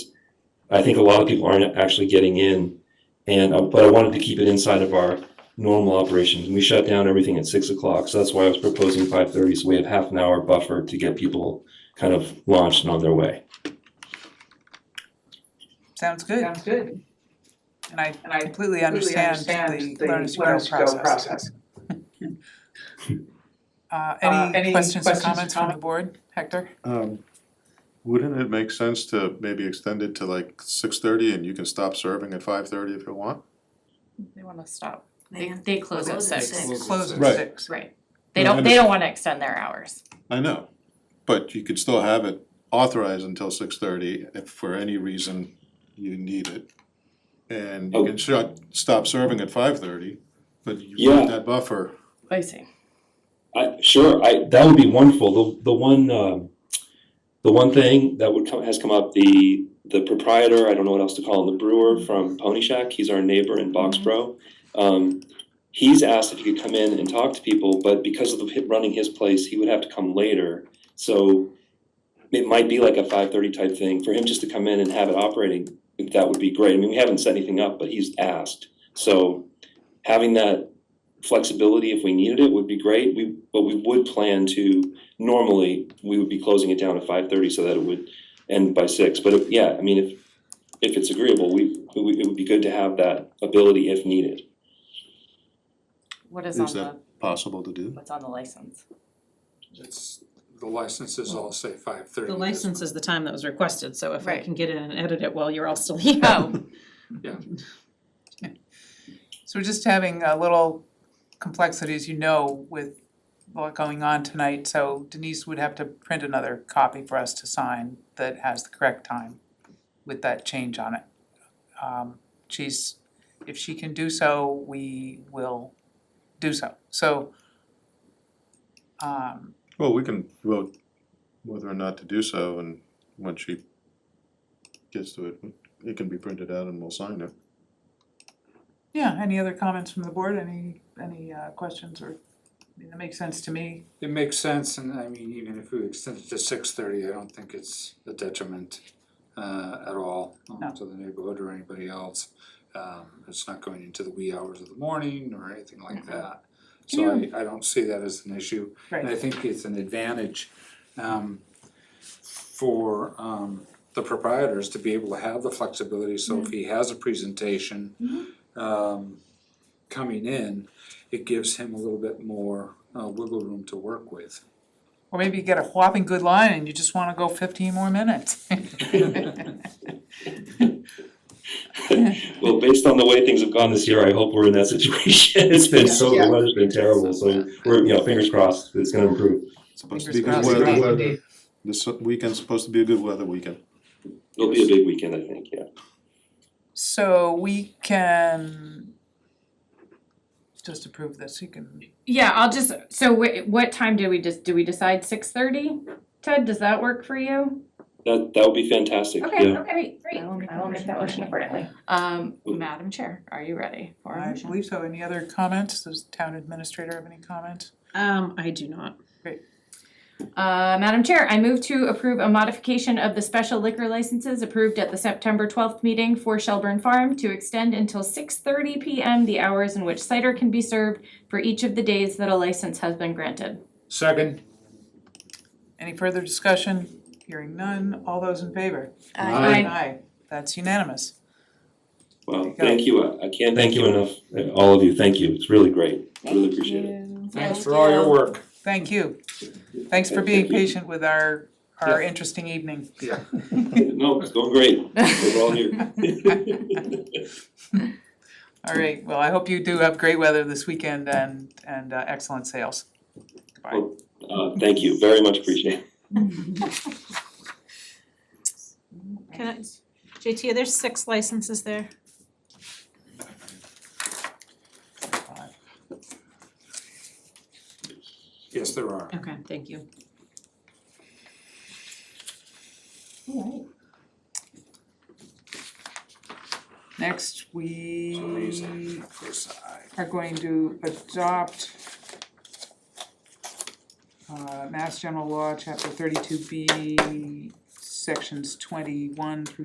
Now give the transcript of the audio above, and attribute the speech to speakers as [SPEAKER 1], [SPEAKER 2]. [SPEAKER 1] I think a lot of people aren't actually getting in. And, uh, but I wanted to keep it inside of our normal operations. We shut down everything at six o'clock. So that's why I was proposing five thirty. So we have half an hour buffer to get people kind of launched and on their way.
[SPEAKER 2] Sounds good,
[SPEAKER 3] Sounds good.
[SPEAKER 2] and I
[SPEAKER 3] And I
[SPEAKER 2] completely
[SPEAKER 3] completely
[SPEAKER 2] understand
[SPEAKER 3] understand
[SPEAKER 2] the
[SPEAKER 3] the
[SPEAKER 2] learn as you go
[SPEAKER 3] learn to go
[SPEAKER 2] process.
[SPEAKER 3] process.
[SPEAKER 2] Uh,
[SPEAKER 3] Uh,
[SPEAKER 2] any
[SPEAKER 3] any
[SPEAKER 2] questions or
[SPEAKER 3] questions or
[SPEAKER 2] comments from the
[SPEAKER 3] comment?
[SPEAKER 2] board? Hector?
[SPEAKER 4] Um, wouldn't it make sense to maybe extend it to like six thirty and you can stop serving at five thirty if you want?
[SPEAKER 5] They wanna stop.
[SPEAKER 6] They
[SPEAKER 5] They
[SPEAKER 6] have
[SPEAKER 5] they close at
[SPEAKER 6] close at
[SPEAKER 5] six.
[SPEAKER 6] six.
[SPEAKER 2] Close at
[SPEAKER 4] Right.
[SPEAKER 2] six.
[SPEAKER 5] Right. They
[SPEAKER 4] No, I
[SPEAKER 5] don't they don't wanna extend their hours.
[SPEAKER 4] I know, but you could still have it authorized until six thirty if for any reason you need it. And you can shut, stop serving at five thirty, but you
[SPEAKER 1] Yeah.
[SPEAKER 4] want that buffer.
[SPEAKER 5] I see.
[SPEAKER 1] I, sure, I, that would be wonderful. The, the one, um, the one thing that would come, has come up, the, the proprietor, I don't know what else to call him, the brewer from Pony Shack, he's our neighbor in Boxborough. Um, he's asked if he could come in and talk to people, but because of the, hit- running his place, he would have to come later. So it might be like a five thirty type thing, for him just to come in and have it operating, that would be great. I mean, we haven't set anything up, but he's asked. So having that flexibility if we needed it would be great. We, but we would plan to, normally, we would be closing it down at five thirty so that it would end by six. But if, yeah, I mean, if, if it's agreeable, we, it would- it would be good to have that ability if needed.
[SPEAKER 5] What
[SPEAKER 4] Is
[SPEAKER 5] is on
[SPEAKER 4] that
[SPEAKER 5] the
[SPEAKER 4] possible to do?
[SPEAKER 5] what's on the license?
[SPEAKER 7] It's, the licenses all say five thirty.
[SPEAKER 6] The license is the time that was requested, so if I
[SPEAKER 5] Right.
[SPEAKER 6] can get in and edit it while you're all still here.
[SPEAKER 5] Oh,
[SPEAKER 2] So we're just having a little complexity, as you know, with what going on tonight, so Denise would have to print another copy for us to sign that has the correct time with that change on it. Um, she's, if she can do so, we will do so, so. Um,
[SPEAKER 4] Well, we can vote whether or not to do so and when she gets to it, it can be printed out and we'll sign it.
[SPEAKER 2] yeah, any other comments from the board, any, any uh questions or, I mean, that makes sense to me,
[SPEAKER 7] It makes sense, and I mean, even if we extend it to six thirty, I don't think it's a detriment uh at all um,
[SPEAKER 2] No.
[SPEAKER 7] to the neighborhood or anybody else. Um it's not going into the wee hours of the morning or anything like that. So I I don't see that as an issue.
[SPEAKER 2] right?
[SPEAKER 7] And I think it's an advantage um for um the proprietors to be able to have the flexibility, so if he has a presentation um coming in, it gives him a little bit more uh wiggle room to work with.
[SPEAKER 2] Or maybe you get a whopping good line and you just wanna go fifteen more minutes.
[SPEAKER 1] Well, based on the way things have gone this year, I hope we're in that situation. It's been so, the weather's been terrible, so we're, you know, fingers crossed, it's gonna improve.
[SPEAKER 4] Supposed to be
[SPEAKER 2] Fingers
[SPEAKER 4] good
[SPEAKER 2] crossed.
[SPEAKER 4] weather,
[SPEAKER 2] Fingers
[SPEAKER 4] weather. This weekend's supposed to be a good weather weekend.
[SPEAKER 1] It'll be a big weekend, I think, yeah.
[SPEAKER 2] So we can just approve this, you can,
[SPEAKER 5] yeah, I'll just, so wh- what time do we just, do we decide six thirty? Ted, does that work for you?
[SPEAKER 1] That, that would be fantastic,
[SPEAKER 5] Okay,
[SPEAKER 1] yeah.
[SPEAKER 5] okay, great. I will, I will make that motion accordingly. Um, Madam Chair, are you ready for a
[SPEAKER 2] I
[SPEAKER 5] motion?
[SPEAKER 2] believe so, any other comments, does town administrator have any comments?
[SPEAKER 6] Um, I do not.
[SPEAKER 5] Uh, Madam Chair, I move to approve a modification of the special liquor licenses approved at the September twelfth meeting for Shelburne Farm to extend until six thirty PM the hours in which cider can be served for each of the days that a license has been granted.
[SPEAKER 7] Second,
[SPEAKER 2] Any further discussion, hearing none, all those in favor?
[SPEAKER 7] Aye.
[SPEAKER 2] Aye, that's unanimous,
[SPEAKER 1] Well, thank you, I I can't thank you enough, uh, all of you, thank you, it's really great, really appreciate it.
[SPEAKER 7] thanks for all your work.
[SPEAKER 2] thank you. Thanks for being patient with our, our interesting evening.
[SPEAKER 7] Yeah.
[SPEAKER 1] No, it's going great, we're all here.
[SPEAKER 2] All right, well, I hope you do have great weather this weekend and, and uh, excellent sales. Goodbye.
[SPEAKER 1] Uh, thank you, very much appreciate it.
[SPEAKER 6] Can I, JT, are there six licenses there?
[SPEAKER 7] Yes, there are.
[SPEAKER 6] Okay, thank you.
[SPEAKER 2] Next, we
[SPEAKER 7] Amazing. Yes, I-
[SPEAKER 2] are going to adopt uh, Mass General Law, Chapter thirty-two B, Sections twenty-one through